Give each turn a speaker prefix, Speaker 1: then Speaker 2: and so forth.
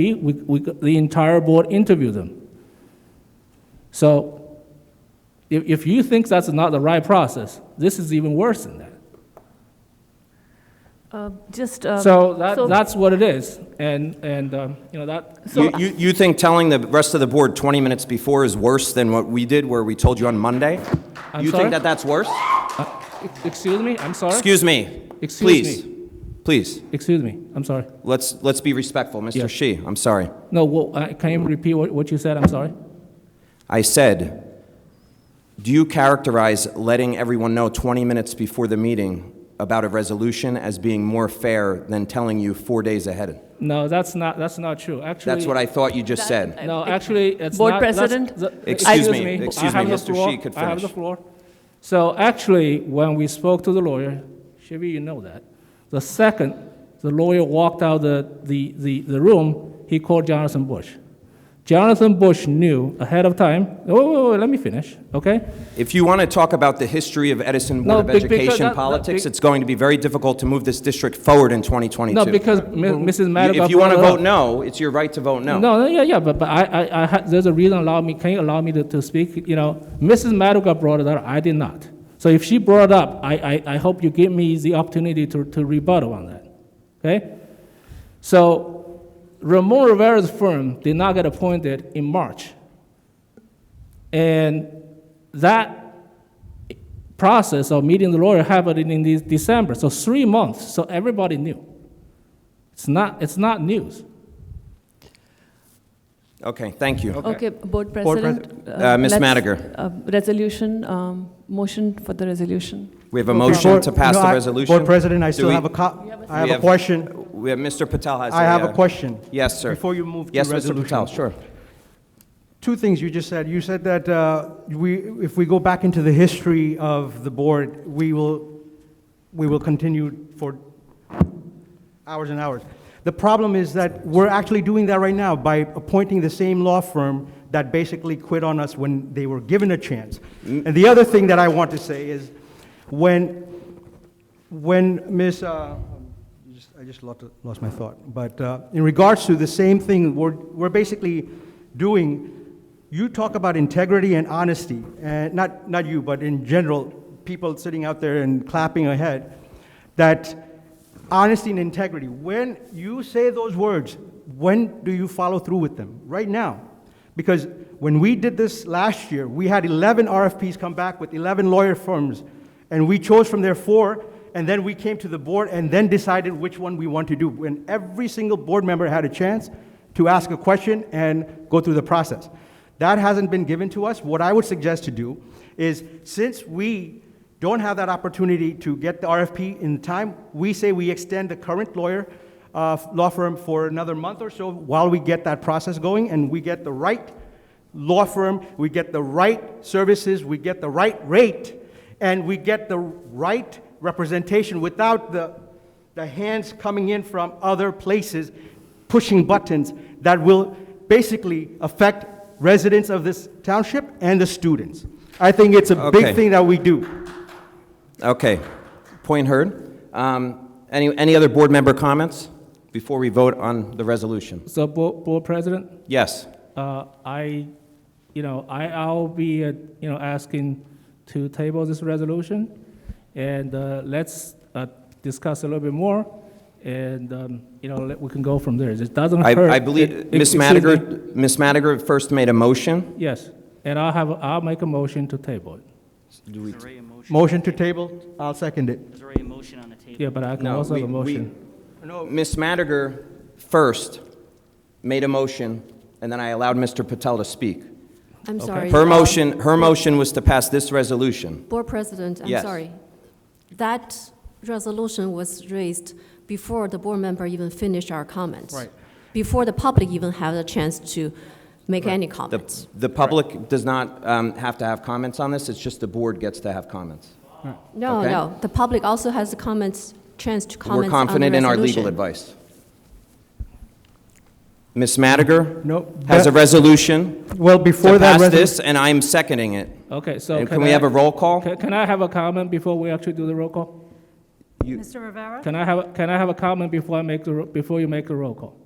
Speaker 1: We, we, the entire board interviewed them. So if, if you think that's not the right process, this is even worse than that.
Speaker 2: Uh, Just, uh,
Speaker 1: So that, that's what it is. And, and, um, you know, that,
Speaker 2: So-
Speaker 3: You, you, you think telling the rest of the board 20 minutes before is worse than what we did where we told you on Monday?
Speaker 1: I'm
Speaker 3: You
Speaker 1: sorry?
Speaker 3: think that that's worse?
Speaker 1: ex- uh, excuse me, I'm sorry?
Speaker 3: Excuse me.
Speaker 1: Excuse
Speaker 3: Please, please,
Speaker 1: Excuse me, I'm sorry.
Speaker 3: let's, let's be respectful. Mr.
Speaker 1: Yes.
Speaker 3: Shi, I'm sorry.
Speaker 1: No, wha- uh, can you repeat what, what you said? I'm sorry.
Speaker 3: I said, do you characterize letting everyone know 20 minutes before the meeting about a resolution as being more fair than telling you four days ahead?
Speaker 1: No, that's not, that's not true. Actually.
Speaker 3: That's what I thought you just said.
Speaker 1: No, actually, it's
Speaker 2: Board
Speaker 1: not- that's-
Speaker 2: President?
Speaker 1: the-
Speaker 3: Excuse me, excuse
Speaker 1: I have
Speaker 3: me,
Speaker 1: the
Speaker 3: Mr.
Speaker 1: floor,
Speaker 3: Shi could
Speaker 1: I have the
Speaker 3: finish.
Speaker 1: floor. So actually, when we spoke to the lawyer, Shivi, you know that, the second the lawyer walked out the, the, the, the room, he called Jonathan Bush. Jonathan Bush knew ahead of time, oh, wait, wait, wait, let me finish, okay?
Speaker 3: If you want to talk about the history of Edison Board
Speaker 1: No,
Speaker 3: of
Speaker 1: be- because that-
Speaker 3: Education
Speaker 1: that-
Speaker 3: politics,
Speaker 1: be-
Speaker 3: it's going to be very difficult to move this district forward in 2022.
Speaker 1: No, because Mi- Mrs. Madigan.
Speaker 3: If Mm-hmm. you want to
Speaker 1: brought it up.
Speaker 3: vote no, it's your right to vote no.
Speaker 1: No, no, yeah, yeah, but, but I, I, I, ha- there's a reason allow me, can you allow me to, to speak? You know, Mrs. Maduka brought it up, I did not. So if she brought it up, I, I, I hope you give me the opportunity to, to rebuttal on that, okay? So Ramon Rivera's firm did not get appointed in March. And that process of meeting the lawyer happened in de- December, so three months, so everybody knew. It's not, it's not news.
Speaker 3: Okay, thank you.
Speaker 2: okay, Board
Speaker 3: Pres-
Speaker 2: President.
Speaker 3: Uh, Ms.
Speaker 2: let's-
Speaker 3: Madiger.
Speaker 2: uh, Resolution, um, motion for the resolution.
Speaker 3: We have a motion to
Speaker 4: Board-
Speaker 3: pass
Speaker 4: no,
Speaker 3: the
Speaker 4: I-
Speaker 3: resolution.
Speaker 4: Board President, I
Speaker 3: Do
Speaker 4: still
Speaker 3: we-
Speaker 4: have a co, I
Speaker 3: we
Speaker 4: have a question.
Speaker 3: We have, Mr. Patel has
Speaker 4: I have
Speaker 3: uh,
Speaker 4: a question.
Speaker 3: Yes, sir.
Speaker 4: Before you move to
Speaker 3: Yes, Mr.
Speaker 4: resolution.
Speaker 3: Patel, sure.
Speaker 4: Two things you just said. You said that uh, we, if we go back into the history of the board, we will, we will continue for hours and hours. The problem is that we're actually doing that right now by appointing the same law firm that basically quit on us when they were given a chance.
Speaker 3: Mm.
Speaker 4: And the other thing that I want to say is, when when Ms., uh, I just- I just lost, lost my thought, but uh, in regards to the same thing we're, we're basically doing, you talk about integrity and honesty, and not, not you, but in general, people sitting out there and clapping ahead, that honesty and integrity. When you say those words, when do you follow through with them? Right now. Because when we did this last year, we had 11 RFPs come back with 11 lawyer firms, and we chose from their four, and then we came to the board and then decided which one we want to do. When every single board member had a chance to ask a question and go through the process. That hasn't been given to us. What I would suggest to do is, since we don't have that opportunity to get the RFP in time, we say we extend the current lawyer, uh, law firm for another month or so while we get that process going and we get the right law firm, we get the right services, we get the right rate, and we get the right representation without the, the hands coming in from other places pushing buttons that will basically affect residents of this township and the students. I think it's a
Speaker 3: Okay.
Speaker 4: big thing that we do.
Speaker 3: Okay, point heard. Um, Any, any other board member comments before we vote on the resolution?
Speaker 1: So, Bo- Board President,
Speaker 3: Yes,
Speaker 1: uh, I, you know, I, I'll be, uh, you know, asking to table this resolution, and uh, let's uh, discuss a little bit more, and, um, you know, let- we can go from there. It doesn't
Speaker 3: I,
Speaker 1: hurt.
Speaker 3: I
Speaker 1: It-
Speaker 3: believe,
Speaker 1: it- excuse
Speaker 3: Ms.
Speaker 1: me.
Speaker 3: Madiger, Ms. Madiger first made a motion.
Speaker 1: Yes, and I'll have, I'll make a motion to table it.
Speaker 5: There's already a motion,
Speaker 4: Motion to table, I'll second it.
Speaker 5: there's already a motion on the table.
Speaker 1: Yeah, but I can
Speaker 3: No,
Speaker 1: also have
Speaker 3: we-
Speaker 1: a
Speaker 3: we-
Speaker 1: motion.
Speaker 3: Ms. Madiger first made a motion, and then I allowed Mr. Patel to speak.
Speaker 6: I'm sorry.
Speaker 3: Her
Speaker 6: uh,
Speaker 3: motion, her motion was to pass this resolution.
Speaker 6: Board President, I'm
Speaker 3: Yes.
Speaker 6: sorry. That resolution was raised before the board member even finished our comments.
Speaker 4: Right.
Speaker 6: Before the public even had a chance to make any comments.
Speaker 3: The, the public does not um, have to have comments on this, it's just the board gets to have comments.
Speaker 6: No,
Speaker 3: Okay.
Speaker 6: no, the public also has a comments, chance to
Speaker 3: We're
Speaker 6: comment on the
Speaker 3: confident in our legal
Speaker 6: resolution.
Speaker 3: advice. Ms. Madiger?
Speaker 4: No,
Speaker 3: Has a
Speaker 4: that-
Speaker 3: resolution
Speaker 4: Well, before
Speaker 3: to
Speaker 4: that
Speaker 3: pass
Speaker 4: resolution.
Speaker 3: this, and I'm seconding it.
Speaker 1: Okay, so.
Speaker 3: And can we
Speaker 1: I-
Speaker 3: have a roll call?
Speaker 1: Can can I have a comment before we actually do the roll call?
Speaker 3: You-
Speaker 7: Mr. Rivera?
Speaker 1: Can I have, can I have a comment before I make the, ro- before you make the roll call?